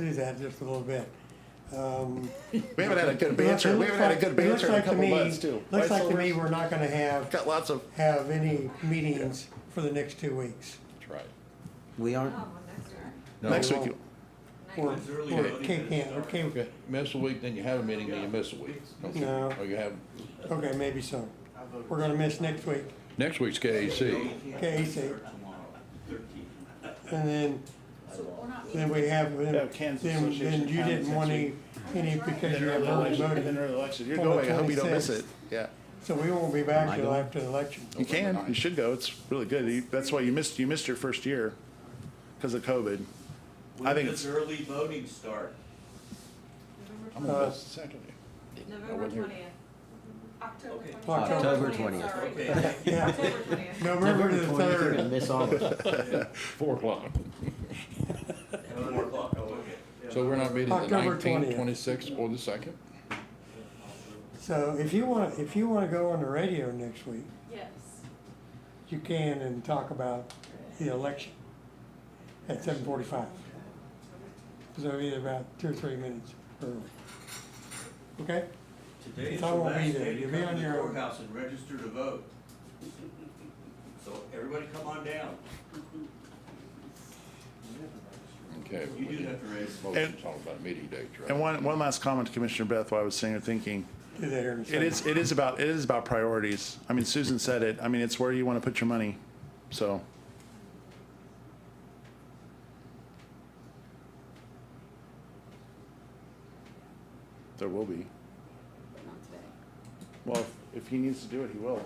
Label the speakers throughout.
Speaker 1: do that just a little bit. Um,
Speaker 2: We haven't had a
Speaker 1: it looks-
Speaker 2: good banter.
Speaker 1: it
Speaker 2: We
Speaker 1: looks
Speaker 2: haven't had a
Speaker 1: like-
Speaker 2: good
Speaker 1: it looks
Speaker 2: banter in a
Speaker 1: like to
Speaker 2: couple
Speaker 1: me-
Speaker 2: months too. Right,
Speaker 1: Looks like to me,
Speaker 2: Silver?
Speaker 1: we're not gonna have,
Speaker 2: Got lots of,
Speaker 1: have any meetings for the next two weeks.
Speaker 2: right.
Speaker 3: We
Speaker 4: Oh,
Speaker 3: aren't, No.
Speaker 2: Next week, you-
Speaker 1: Or, or
Speaker 5: It's early voting
Speaker 1: K
Speaker 5: that it
Speaker 1: can, or
Speaker 5: starts.
Speaker 1: K,
Speaker 6: Okay, miss a week, then you have a meeting, then you miss a week. Okay.
Speaker 1: No.
Speaker 6: Or you have,
Speaker 1: okay, maybe so. We're gonna miss next week,
Speaker 6: next week's KAC.
Speaker 1: KAC. And then, then we have,
Speaker 7: Yeah,
Speaker 1: then,
Speaker 7: Kansas
Speaker 1: then
Speaker 7: Association
Speaker 1: then you
Speaker 7: of
Speaker 1: didn't
Speaker 7: Counties
Speaker 1: want
Speaker 7: next
Speaker 1: any, any because you have early
Speaker 7: Then
Speaker 1: voting.
Speaker 7: they're elected. You're
Speaker 1: On
Speaker 7: going.
Speaker 1: the
Speaker 2: going, I hope you don't miss
Speaker 1: 26th.
Speaker 2: it. Yeah.
Speaker 1: So we won't be
Speaker 3: Am I
Speaker 1: back till
Speaker 3: going?
Speaker 1: after the election.
Speaker 2: You can, you
Speaker 6: Overnight.
Speaker 2: should go. It's really good. You- That's why you missed, you missed your first year because of COVID. I
Speaker 5: When
Speaker 2: think
Speaker 5: does
Speaker 2: it's-
Speaker 5: early voting start?
Speaker 6: I'm
Speaker 1: Uh,
Speaker 6: gonna miss the second.
Speaker 4: November twentieth. October
Speaker 5: Okay.
Speaker 4: twentieth.
Speaker 3: October 20th.
Speaker 4: sorry.
Speaker 5: Okay, thank you.
Speaker 1: Yeah,
Speaker 4: October twentieth.
Speaker 1: November the
Speaker 3: You're gonna
Speaker 1: third,
Speaker 3: miss all of it.
Speaker 6: Four o'clock.
Speaker 5: Eleven o'clock, oh, okay.
Speaker 6: So we're not meeting the
Speaker 1: October 20th.
Speaker 6: nineteenth, twenty-sixth, or the second?
Speaker 1: so if you wanna, if you wanna go on the radio next week,
Speaker 4: Yes.
Speaker 1: you can and talk about the election at seven forty-five. So either about two or three minutes early. Okay?
Speaker 5: Today is
Speaker 1: I
Speaker 5: the
Speaker 1: won't be
Speaker 5: last
Speaker 1: there.
Speaker 5: day to
Speaker 1: You'll be
Speaker 5: come
Speaker 1: on
Speaker 5: to the
Speaker 1: your own.
Speaker 5: courthouse and register to vote. So everybody come on down.
Speaker 6: Okay.
Speaker 5: You do have to raise.
Speaker 6: Motion talking about meeting dates, right?
Speaker 2: And one, one last comment to Commissioner Beth while I was sitting here thinking,
Speaker 1: Do that here in a
Speaker 2: it
Speaker 1: second.
Speaker 2: is, it is about, it is about priorities. I mean, Susan said it. I mean, it's where you want to put your money. So there will be. Well, if- if he needs to do it, he will.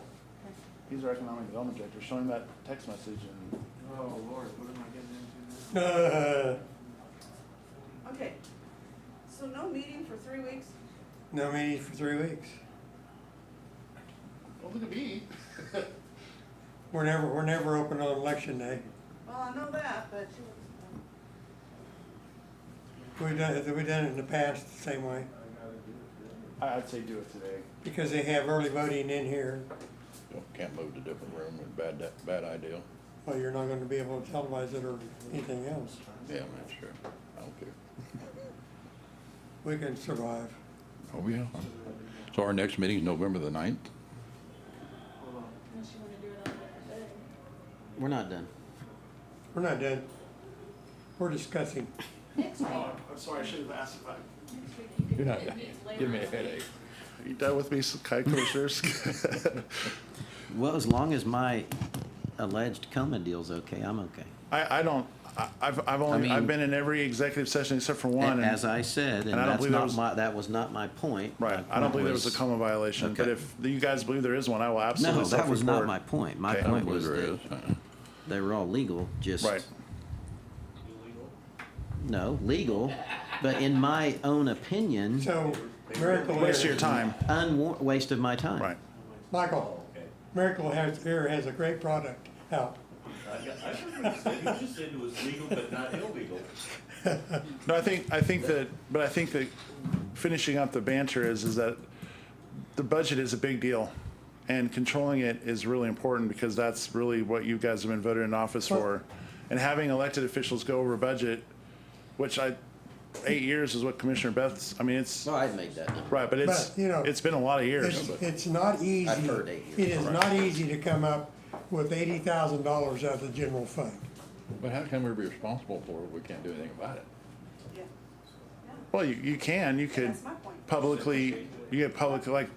Speaker 2: He's our economic development director. Show him that text message and
Speaker 5: Oh, Lord, what am I getting into now?
Speaker 1: Uh,
Speaker 4: Okay, so no meeting for three weeks?
Speaker 1: no meetings for three weeks.
Speaker 2: Well, look at me.
Speaker 1: We're never, we're never open on election day.
Speaker 4: Well, I know that, but
Speaker 1: We've done, it- we've done it in the past the same way,
Speaker 2: I- I'd say do it today.
Speaker 1: because they have early voting in here,
Speaker 6: Well, Can't move to different room, and bad, da- bad idea.
Speaker 1: well, you're not gonna be able to televise it or anything else.
Speaker 6: Yeah, man, sure. I don't care.
Speaker 1: We can survive.
Speaker 6: Oh, yeah. So our next meeting is November the ninth?
Speaker 4: unless you wanna do it on a different day.
Speaker 3: We're not done.
Speaker 1: We're not done. We're discussing.
Speaker 4: Next week,
Speaker 7: Oh, I'm sorry, I should have asked if I.
Speaker 4: next week you can.
Speaker 6: You're not,
Speaker 4: it meets later
Speaker 6: give me
Speaker 4: on
Speaker 6: a
Speaker 4: in the week.
Speaker 6: headache.
Speaker 2: Are you done with me, Kai Commissioners?
Speaker 3: Well, as long as my alleged coma deal's okay, I'm okay.
Speaker 2: I, I don't, I- I've, I've only, I've
Speaker 3: mean-
Speaker 2: been in every executive session except for one. and-
Speaker 3: As I said, and
Speaker 2: and I don't
Speaker 3: that's
Speaker 2: believe there
Speaker 3: not
Speaker 2: was-
Speaker 3: my, that was not my point. My
Speaker 2: Right, I don't
Speaker 3: point
Speaker 2: believe there was a coma violation, but
Speaker 3: Okay.
Speaker 2: if you guys believe there is one, I will absolutely
Speaker 3: No, that was not
Speaker 2: self-report.
Speaker 3: my point. My
Speaker 2: Okay. I don't
Speaker 3: point
Speaker 6: believe
Speaker 3: was
Speaker 6: there
Speaker 3: that
Speaker 6: is. Uh-uh.
Speaker 3: they were all legal, just.
Speaker 2: Right,
Speaker 5: Illegal?
Speaker 3: No, legal, but in my own opinion,
Speaker 1: So, Miracle
Speaker 2: waste of your
Speaker 1: Air,
Speaker 2: time,
Speaker 3: unwar, waste of my time.
Speaker 2: right.
Speaker 1: Michael, Miracle has, Air has a great product out.
Speaker 5: I got- I heard what you said. You just said it was legal but not illegal.
Speaker 2: No, I think, I think that, but I think that finishing up the banter is, is that the budget is a big deal. And controlling it is really important because that's really what you guys have been voted in office for. And having elected officials go over budget, which I, eight years is what Commissioner Beth's, I mean, it's,
Speaker 3: No, I'd make that number.
Speaker 2: right, but it's,
Speaker 1: But, you know,
Speaker 2: it's been a lot of years.
Speaker 1: It's, it's not easy.
Speaker 3: I've heard eight years.
Speaker 1: It is not easy to come up with eighty thousand dollars out of the general fund.
Speaker 6: But how can we be responsible for it? if We can't do anything about it.
Speaker 4: Yeah,
Speaker 2: Well, you, you can, you could
Speaker 4: that's my point.
Speaker 2: publicly, you get public, like,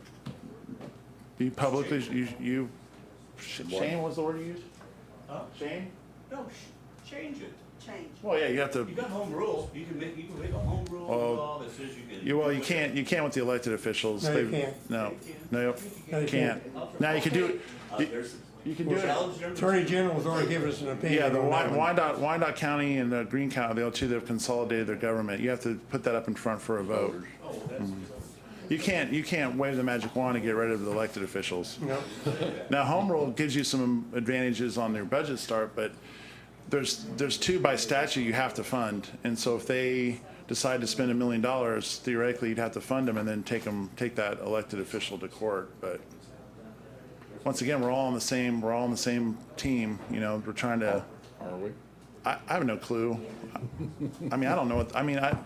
Speaker 2: you publicly, you, you. Shane, what's the word you used?
Speaker 5: Huh?
Speaker 2: Shane?
Speaker 5: No, sh- change it.
Speaker 4: Change.
Speaker 2: Well, yeah, you have to,
Speaker 5: You got home rules. You can make, you can make a home rule
Speaker 2: Well,
Speaker 5: law that says you can.
Speaker 2: you, well,
Speaker 5: do
Speaker 2: you
Speaker 5: it.
Speaker 2: can't, you can't with the elected officials.
Speaker 1: No, you
Speaker 2: They-
Speaker 1: can't.
Speaker 2: No, no,
Speaker 1: No, you
Speaker 2: can't. Now, you can do,
Speaker 5: Uh,
Speaker 2: it.
Speaker 5: there's.
Speaker 2: you can do it.
Speaker 5: Challenge number
Speaker 1: Attorney
Speaker 5: two.
Speaker 1: General's already given us an opinion.
Speaker 2: Yeah, the
Speaker 1: on that
Speaker 2: Wy-
Speaker 1: one.
Speaker 2: Wyandotte, Wyandotte County and the Green County, they all two, they've consolidated their government. You have to put that up in front for a vote. Mm.
Speaker 5: Oh, that's just.
Speaker 2: You can't, you can't wave the magic wand and get rid of the elected officials.
Speaker 1: No,
Speaker 2: Now, home rule gives you some advantages on your budget start, but there's, there's two by statute you have to fund. And so if they decide to spend a million dollars, theoretically, you'd have to fund them and then take them, take that elected official to court. But once again, we're all on the same, we're all on the same team, you know, we're trying to,
Speaker 6: Are we?
Speaker 2: I, I have no clue. I mean, I don't know what, I mean, I,